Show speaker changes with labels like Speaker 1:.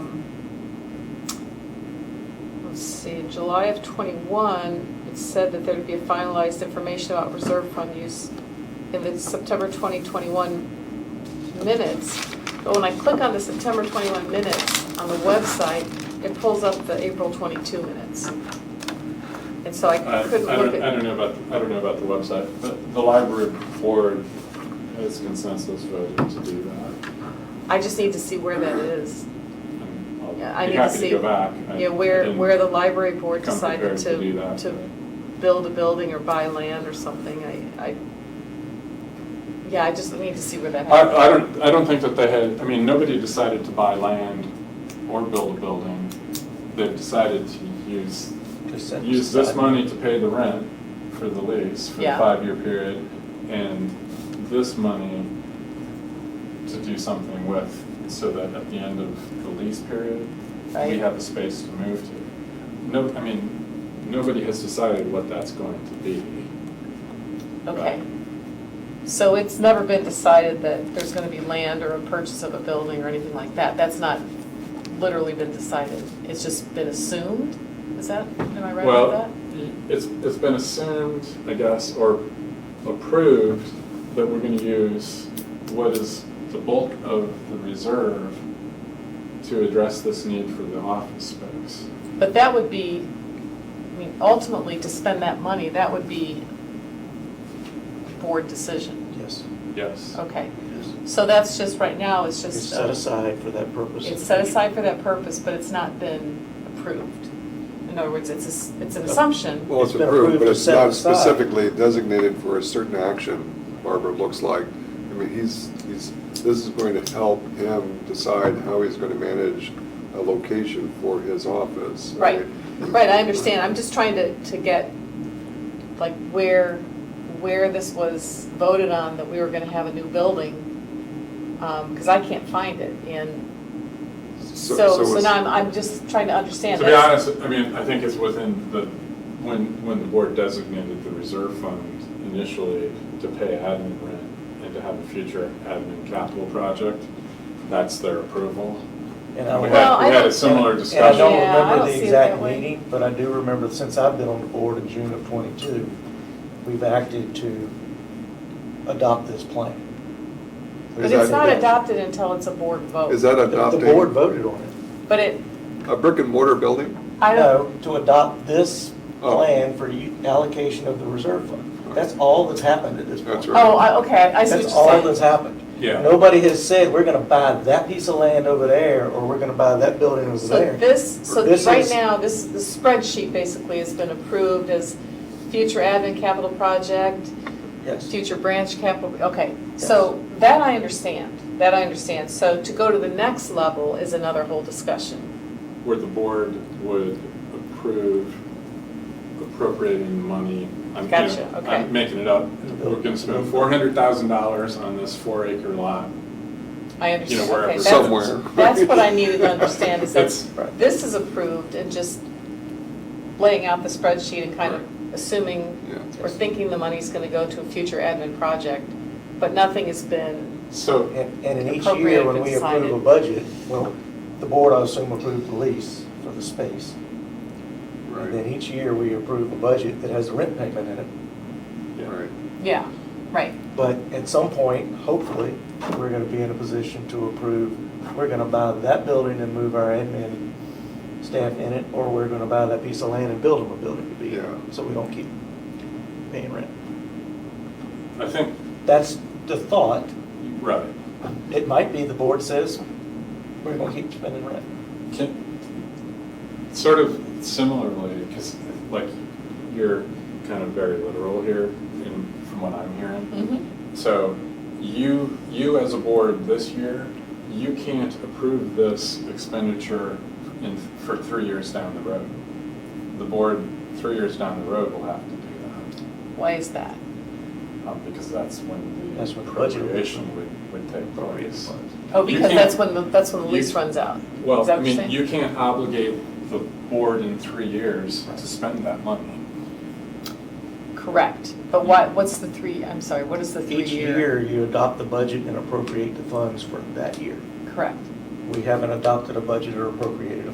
Speaker 1: see, July of '21, it said that there'd be a finalized information about reserve fund use in the September 2021 minutes. But when I click on the September 21 minutes on the website, it pulls up the April 22 minutes. And so I
Speaker 2: I I
Speaker 1: couldn't look
Speaker 2: don't, I
Speaker 1: at,
Speaker 2: don't know about, I don't know about the website, but the library board has consensus voted to do that.
Speaker 1: I just need to see where that is.
Speaker 2: And I'll
Speaker 1: Yeah, I
Speaker 2: be
Speaker 1: need to
Speaker 2: happy
Speaker 1: see,
Speaker 2: go back. I-
Speaker 1: Yeah,
Speaker 2: I
Speaker 1: where,
Speaker 2: didn't
Speaker 1: where the library board
Speaker 2: come
Speaker 1: decided
Speaker 2: prepared
Speaker 1: to,
Speaker 2: do that,
Speaker 1: to
Speaker 2: but-
Speaker 1: build a building or buy land or something, I, I, yeah, I just need to see where that happened.
Speaker 2: I, I don't, I don't think that they had, I mean, nobody decided to buy land or build a building. They've decided to use, use this money to pay the rent for the lease for the
Speaker 1: Yeah.
Speaker 2: five-year period, and this money to do something with, so that at the end of the lease period, we
Speaker 1: Right.
Speaker 2: have a space to move to. No, I mean, nobody has decided what that's going to be.
Speaker 1: Okay. So it's never been decided that there's gonna be land or a purchase of a building or anything like that, that's not literally been decided, it's just been assumed, is that, am I right
Speaker 2: Well,
Speaker 1: about that?
Speaker 2: It's, it's been assumed, I guess, or approved that we're gonna use what is the bulk of the reserve to address this need for the office space.
Speaker 1: But that would be, I mean, ultimately, to spend that money, that would be board decision,
Speaker 3: Yes,
Speaker 2: Yes.
Speaker 1: okay.
Speaker 3: yes.
Speaker 1: So that's just, right now, it's
Speaker 3: It's
Speaker 1: just,
Speaker 3: set
Speaker 1: uh,
Speaker 3: aside for that purpose.
Speaker 1: it's set aside for that purpose, but it's not been approved. In other words, it's, a s- it's
Speaker 3: Uh,
Speaker 1: an assumption.
Speaker 4: Well, it's
Speaker 3: It's been
Speaker 4: approved, but
Speaker 3: approved
Speaker 4: it's
Speaker 3: and set
Speaker 4: not
Speaker 3: aside.
Speaker 4: specifically designated for a certain action, Barbara, it looks like. I mean, he's, he's, this is going to help him decide how he's going to manage a location for his office.
Speaker 1: Right, right, I understand, I'm just trying to, to get, like, where, where this was voted on, that we were gonna have a new building, because I can't find it, and so, so
Speaker 4: it's-
Speaker 1: now I'm, I'm just trying to understand.
Speaker 2: To be
Speaker 1: that's-
Speaker 2: honest, I mean, I think it's within the, when, when the board designated the reserve fund initially to pay admin rent and to have a future admin capital project, that's their approval.
Speaker 3: And I
Speaker 2: And we
Speaker 3: don't-
Speaker 1: Well,
Speaker 2: had,
Speaker 1: I
Speaker 2: we had a
Speaker 1: don't-
Speaker 2: similar
Speaker 3: And I
Speaker 2: discussion.
Speaker 3: don't
Speaker 1: Yeah, I don't
Speaker 3: remember
Speaker 1: see
Speaker 3: the
Speaker 1: it that
Speaker 3: exact
Speaker 1: way.
Speaker 3: meeting, but I do remember, since I've been on the board in June of '22, we've acted to adopt this plan.
Speaker 1: But
Speaker 4: Is
Speaker 1: it's
Speaker 4: that-
Speaker 1: not adopted until it's a board vote.
Speaker 4: Is that
Speaker 3: The- The board
Speaker 4: adopting
Speaker 3: voted on it.
Speaker 1: But it,
Speaker 4: a brick and mortar building?
Speaker 1: I don't,
Speaker 3: No, to adopt this
Speaker 4: Oh.
Speaker 3: plan for u- allocation of the reserve fund. That's all that's happened at this point.
Speaker 4: That's right.
Speaker 1: oh, I- okay, I see what
Speaker 3: That's
Speaker 1: you're
Speaker 3: all
Speaker 1: saying.
Speaker 3: that's happened.
Speaker 2: Yeah.
Speaker 3: Nobody has said, we're going to buy that piece of land over there, or we're going to buy that building over
Speaker 1: So
Speaker 3: there.
Speaker 1: this, so
Speaker 3: This
Speaker 1: right
Speaker 3: is-
Speaker 1: now, this, the spreadsheet basically has been approved as future admin capital project,
Speaker 3: Yes.
Speaker 1: future branch capital, okay. So that I understand, that I understand. So to go to the next level is another whole discussion.
Speaker 2: where the board would approve appropriating money. I'm- you know,
Speaker 1: Gotcha, okay.
Speaker 2: I'm making it up. We're gonna spend four hundred thousand dollars on this four acre lot.
Speaker 1: I
Speaker 2: You know,
Speaker 1: understand,
Speaker 2: wherever.
Speaker 1: okay. that's-
Speaker 4: Somewhere.
Speaker 1: That's what I needed to understand, is that
Speaker 2: That's-
Speaker 1: this is approved and just laying out the spreadsheet and kind of assuming
Speaker 4: Yeah.
Speaker 1: We're thinking the money's gonna go to a future admin project, but nothing has been,
Speaker 2: So,
Speaker 3: And, and in each
Speaker 1: Appropriate
Speaker 3: year,
Speaker 1: if
Speaker 3: when we
Speaker 1: it's
Speaker 3: approve a
Speaker 1: cited.
Speaker 3: budget, well, the board, I assume, approved the lease for the space. And then
Speaker 4: Right,
Speaker 3: each year, we approve a budget that has a rent payment in it.
Speaker 2: yeah.
Speaker 4: right.
Speaker 1: yeah, right.
Speaker 3: But at some point, hopefully, we're gonna be in a position to approve, we're gonna buy that building and move our admin staff in it, or we're gonna buy that piece of land and build them a building to be
Speaker 4: Yeah.
Speaker 3: in, so we don't keep paying rent.
Speaker 2: I think,
Speaker 3: That's the thought.
Speaker 2: right.
Speaker 3: It might be the board says, we're gonna keep spending rent.
Speaker 2: Can- Sort of similarly, because like you're kind of very literal here in, from what I'm hearing.
Speaker 1: Mm-hmm.
Speaker 2: So you, you as a board this year, you can't approve this expenditure in, for three years down the road. The board, three years down the road, will have to do
Speaker 1: Why is that?
Speaker 2: that, um, because that's when the
Speaker 3: That's when the budget-
Speaker 2: appropriation would, would take place.
Speaker 1: Oh,
Speaker 2: You
Speaker 1: because
Speaker 2: can't-
Speaker 1: that's when, the that's when the
Speaker 2: you-
Speaker 1: lease runs out. Is
Speaker 2: Well,
Speaker 1: that
Speaker 2: I
Speaker 1: what you're
Speaker 2: mean,
Speaker 1: saying?
Speaker 2: you can't obligate the board in three years to spend that money.
Speaker 1: Correct, but why, what's the three, I'm sorry, what is the three-year?
Speaker 3: Each year, you adopt the budget and appropriate the funds for that year.
Speaker 1: Correct.
Speaker 3: We haven't adopted a budget or appropriated a